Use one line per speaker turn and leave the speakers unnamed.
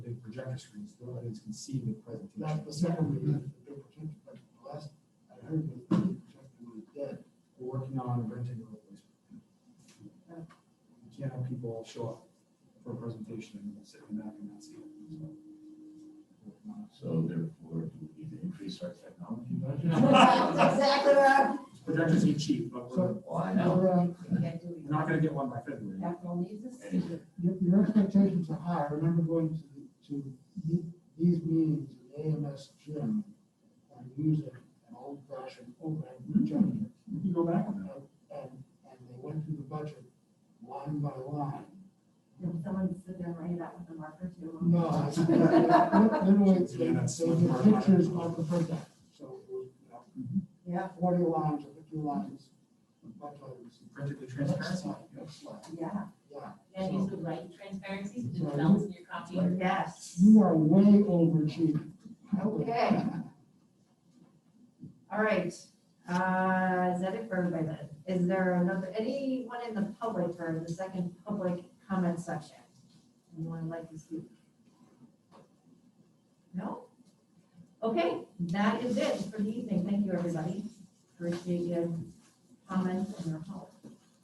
projector screens, so audience can see the presentation.
That's the second reason, the protection, but the last I heard was the protector was dead.
We're working on renting a replacement. You Can't have people show up for a presentation and sit in the back and not see it. so. Working on it.
So therefore, do we need to increase our technology
That's
budget?
exactly what I'm
Projectors ain't cheap, but we're,
Why not?
Your, uh,
thinking.
we're not gonna get one by February.
Capital needs a
Anyway.
secret.
your, your expectations are high. I remember going to, the- to the- these meetings in the AMS gym and using an old fashioned overhead projector.
We Hmm. can go back on
And,
that.
and and they went through the budget line by line.
Did someone sit there and write it out with a marker too?
No, it's- then we, they
Yeah, that's much more
did
fun.
pictures of the project, so, it was, you know,
Yeah,
forty lines or fifty lines. of budget items.
Practically transparency.
Next slide,
yeah.
yeah.
And these would like transparencies, the
Sorry.
bells in your coffee.
Yes.
You are way overachieving.
Okay. All right, uh, is that it for everybody then? Is there another, anyone in the public or the second public comment section? Anyone like to speak? No? Okay, that is it for the evening. Thank you, everybody. Appreciate your comments and your help.